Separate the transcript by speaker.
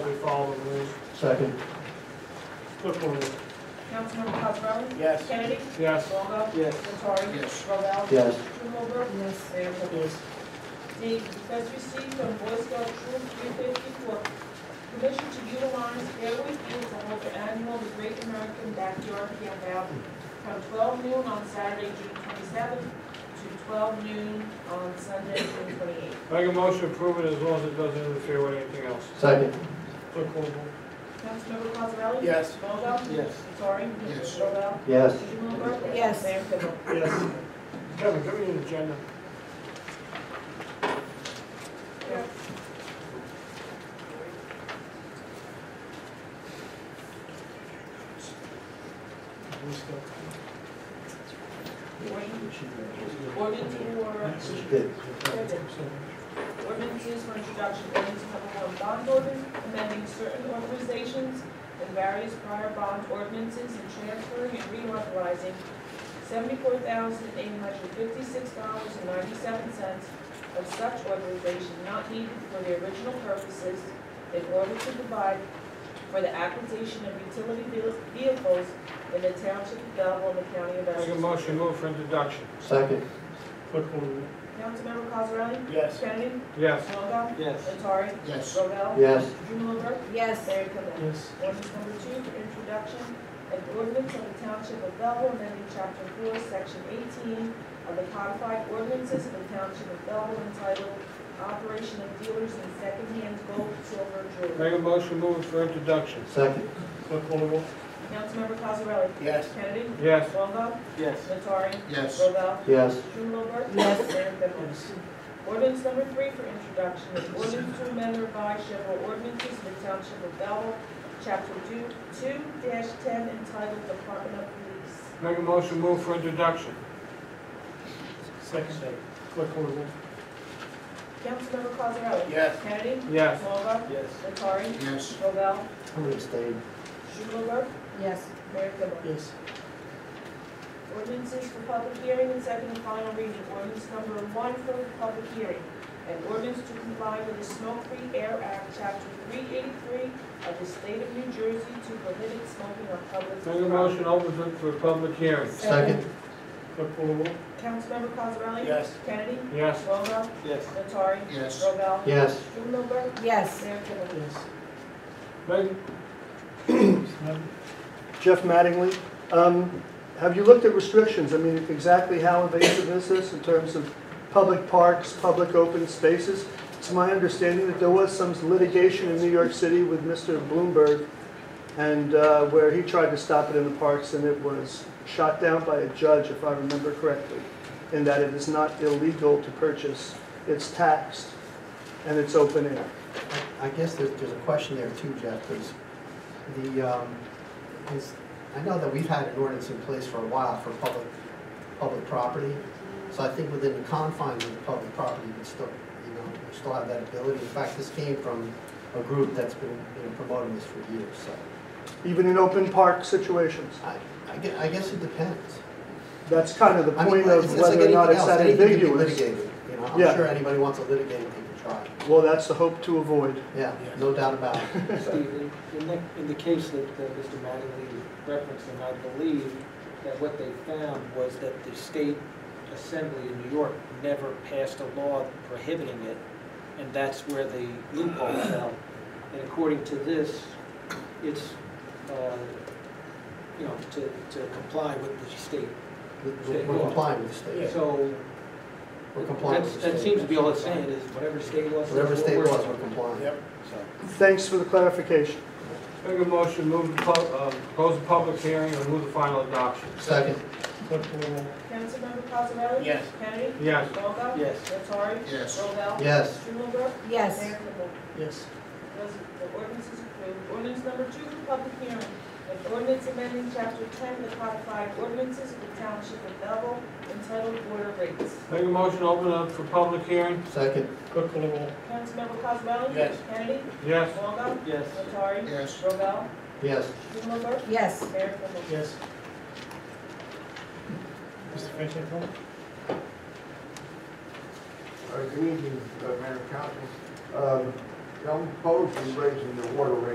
Speaker 1: follow the rules.
Speaker 2: Second.
Speaker 1: Clerk will read.
Speaker 3: Councilmember Cosrally?
Speaker 1: Yes.
Speaker 3: Kennedy?
Speaker 1: Yes.
Speaker 3: Longo?
Speaker 1: Yes.
Speaker 3: Nattari?
Speaker 4: Yes.
Speaker 3: Robel?
Speaker 2: Yes.
Speaker 3: Strumelberg? Yes. Mayor Cooper?
Speaker 1: Yes.
Speaker 3: D, discuss receipt from Boy Scout Troop three fifty for permission to utilize Fairway Field to hold the annual The Great American Backyard Campout from twelve noon on Saturday, June twenty-seventh, to twelve noon on Sunday, June twenty-eighth.
Speaker 1: Make a motion to approve it as long as it doesn't interfere with anything else.
Speaker 2: Second.
Speaker 1: Clerk will read.
Speaker 3: Councilmember Cosrally?
Speaker 4: Yes.
Speaker 3: Longo?
Speaker 1: Yes.
Speaker 3: Nattari?
Speaker 4: Yes.
Speaker 3: Robel?
Speaker 2: Yes.
Speaker 3: Strumelberg?
Speaker 5: Yes.
Speaker 3: Mayor Cooper?
Speaker 1: Yes. Kevin, give me an agenda.
Speaker 3: Yes. Ordinance for,
Speaker 2: She did.
Speaker 3: ordinances for introduction, ordinance number one, bond ordinance, amending certain authorizations and various prior bond ordinances and transferring and reauthorizing seventy-four thousand eight hundred fifty-six dollars and ninety-seven cents of such authorization not needed for the original purposes in order to provide for the acquisition of utility ve- vehicles in the township of Belleville and the county of
Speaker 1: Make a
Speaker 3: Essex.
Speaker 1: motion, move for introduction.
Speaker 2: Second.
Speaker 1: Clerk will read.
Speaker 3: Councilmember Cosrally?
Speaker 4: Yes.
Speaker 3: Kennedy?
Speaker 1: Yes.
Speaker 3: Longo?
Speaker 4: Yes.
Speaker 3: Nattari?
Speaker 4: Yes.
Speaker 3: Robel?
Speaker 2: Yes.
Speaker 3: Strumelberg?
Speaker 5: Yes.
Speaker 3: Mayor Kibble?
Speaker 1: Yes.
Speaker 3: Ordinance number two for introduction, an ordinance of the Township of Belleville amending Chapter Four, Section eighteen of the codified ordinances of the Township of Belleville entitled Operation of Dealers in Secondhand Gold, Silver, Jewelry.
Speaker 1: Make a motion, move for introduction.
Speaker 2: Second.
Speaker 1: Clerk will read.
Speaker 3: Councilmember Cosarelli?
Speaker 4: Yes.
Speaker 3: Kennedy?
Speaker 1: Yes.
Speaker 3: Longo?
Speaker 4: Yes.
Speaker 3: Nattari?
Speaker 4: Yes.
Speaker 3: Robel?
Speaker 2: Yes.
Speaker 3: Strumelberg?
Speaker 5: Yes.
Speaker 3: Mayor Kibble? Ordinance number three for introduction, an ordinance to amend or revise several ordinances in the Township of Belleville, Chapter two, two dash ten entitled Department of Police.
Speaker 1: Make a motion, move for introduction. Second. Clerk will read.
Speaker 3: Councilmember Cosarelli?
Speaker 4: Yes.
Speaker 3: Kennedy?
Speaker 1: Yes.
Speaker 3: Longa?
Speaker 4: Yes.
Speaker 3: Nattari?
Speaker 4: Yes.
Speaker 3: Robel?
Speaker 2: I'm gonna stay.
Speaker 3: Schumelberg?
Speaker 5: Yes.
Speaker 3: Mayor Kibble?
Speaker 1: Yes.
Speaker 3: Ordinances for public hearing and second and final reading. Ordinance number one for public hearing. An ordinance to comply with the Smoke-Free Air Act, Chapter 383 of the State of New Jersey to prohibit smoking on public.
Speaker 1: Make a motion, open it for a public hearing.
Speaker 2: Second.
Speaker 1: Clerk will read.
Speaker 3: Councilmember Cosarelli?
Speaker 4: Yes.
Speaker 3: Kennedy?
Speaker 1: Yes.
Speaker 3: Longo?
Speaker 4: Yes.
Speaker 3: Nattari?
Speaker 4: Yes.
Speaker 3: Robel?
Speaker 2: Yes.
Speaker 3: Schumelberg?
Speaker 5: Yes.
Speaker 3: Mayor Kibble?
Speaker 1: Yes. Make,
Speaker 6: Jeff Mattingly. Um, Have you looked at restrictions? I mean, exactly how invasive is this in terms of public parks, public open spaces? It's my understanding that there was some litigation in New York City with Mr. Bloomberg, and uh, where he tried to stop it in the parks, and it was shot down by a judge, if I remember correctly, in that it is not illegal to purchase, it's taxed, and it's open air.
Speaker 2: I guess there's, there's a question there too, Jeff, because the, um, is, I know that we've had an ordinance in place for a while for public, public property. So I think within the confines of the public property, you can still, you know, you still have that ability. In fact, this came from a group that's been, you know, promoting this for years, so.
Speaker 6: Even in open park situations.
Speaker 2: I, I gue- I guess it depends.
Speaker 6: That's kind of the
Speaker 2: I mean,
Speaker 6: point of
Speaker 2: it's- it's like
Speaker 6: whether or not
Speaker 2: anything
Speaker 6: it's
Speaker 2: else.
Speaker 6: that
Speaker 2: Anything can be
Speaker 6: ambiguous.
Speaker 2: litigated, you know,
Speaker 6: Yeah.
Speaker 2: I'm sure anybody wants to litigate, they can try.
Speaker 6: Well, that's the hope to avoid.
Speaker 2: Yeah, no doubt about it.
Speaker 7: Steve, in- in the, in the case that that Mr. Mattingly referenced, and I believe that what they found was that the state assembly in New York never passed a law prohibiting it, and that's where the loophole fell. And according to this, it's, uh, you know, to, to comply with the state.
Speaker 2: We're we're complying with the state.
Speaker 7: So
Speaker 2: We're complying with
Speaker 7: that's-
Speaker 2: the state.
Speaker 7: that seems to be all it's saying, is whatever state law says.
Speaker 2: Whatever
Speaker 7: what
Speaker 2: state
Speaker 7: we're-
Speaker 2: laws, we're complying.
Speaker 4: Yep.
Speaker 7: So.
Speaker 6: Thanks for the clarification.
Speaker 1: make a motion, move the, pub- uh, close the public hearing and move the final adoption.
Speaker 2: Second,
Speaker 1: Clerk will read.
Speaker 3: Councilmember Cosarelli?
Speaker 4: Yes.
Speaker 3: Kennedy?
Speaker 1: Yes.
Speaker 3: Longo?
Speaker 7: Yes.
Speaker 3: Nattari?
Speaker 4: Yes.
Speaker 3: Robel?
Speaker 2: yes.
Speaker 3: Schumelberg?
Speaker 5: Yes.
Speaker 3: Mayor Kibble?
Speaker 6: Yes.
Speaker 3: Res- The ordinance is approved. Ordinance number two for public hearing. An ordinance amending chapter ten of the codified ordinances of the township of Belleville entitled Water Rates.
Speaker 1: Make a motion, open up for public hearing.
Speaker 2: Second,
Speaker 1: Clerk will read.
Speaker 3: Councilmember Cosrally?
Speaker 4: Yes.
Speaker 3: Kennedy?
Speaker 1: Yes.
Speaker 3: Longo?
Speaker 7: Yes.
Speaker 3: Nattari?
Speaker 4: Yes.
Speaker 3: Robel?
Speaker 2: yes.
Speaker 3: Schumelberg?
Speaker 5: Yes.
Speaker 3: Mayor Kibble?
Speaker 1: Yes. Mr. Franchek?
Speaker 8: Uh, Good evening, uh, Mayor and Council. Um, I'm opposed to raising the water rate